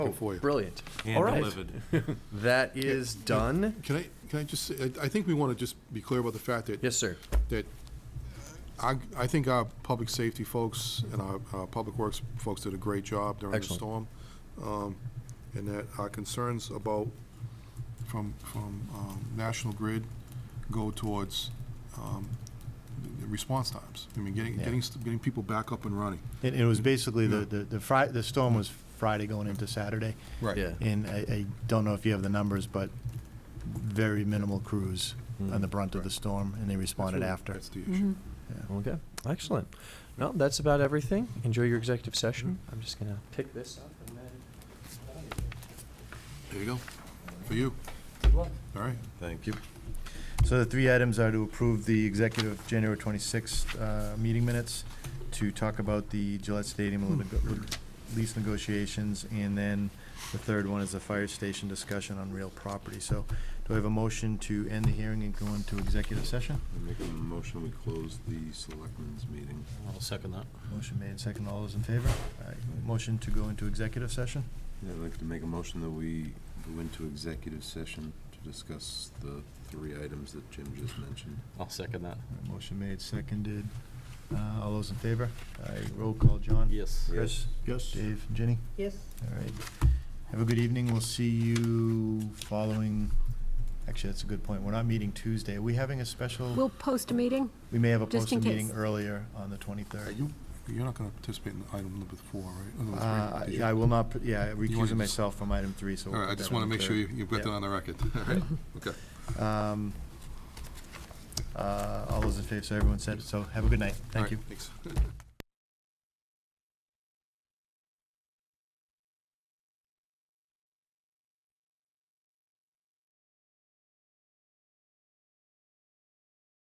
for you. Oh, Brilliant. All Hand right. delivered. That is done. Can I, can I just, say- I I think we want to just be clear about the fact that. Yes, sir. That I, I think our public safety folks and our, our public works folks did a great job during the Excellent. storm. um, And that our concerns about, from, from um, National Grid go towards um, the response times. I mean, getting, Yeah. getting, st- getting people back up and running. And it was basically the, the, the Fri, the storm was Friday going into Saturday. Right. Yeah. And I, I don't know if you have the numbers, but very minimal crews on the brunt of the storm, and they responded after. That's the issue. Okay. Excellent. No, that's about everything. Enjoy your executive session. I'm just gonna pick this up and then. There you go. For you. All right. Thank you. Mm. So the three items are to approve the executive January 26th uh, meeting minutes, to talk about the Gillette Stadium lit- lease negotiations, and then the third one is the fire station discussion on real property. So do I have a motion to end the hearing and go into executive session? I Make a motion, we close the selectmen's meeting. I'll second that. Motion made, second. All those in favor? Aye. Motion to go into executive session? Yeah, I'd like to make a motion that we go into executive session to discuss the three items that Jim just mentioned. I'll second that. All right, Motion made, seconded. Uh, All those in favor? Aye. Roll call, John? Yes. Chris? Yes. Dave? Ginny? Yes. All right. Have a good evening. We'll see you following, actually, that's a good point. We're not meeting Tuesday. Are we having a special, We'll post a meeting. we may have a just in posted meeting case. earlier on the Are 23rd. Uh, you, you're not going to participate in item number four, right? Or number three? Uh, Did you? I I will not, put- yeah, wanna recusing just- myself from item three, so. All we'll right, I put just that want to on the make sure third. you- you've got Yeah. that on the record. All right, okay. Um, uh, All those in favor, so everyone said, so have a good night. All Thank right, you. Thanks.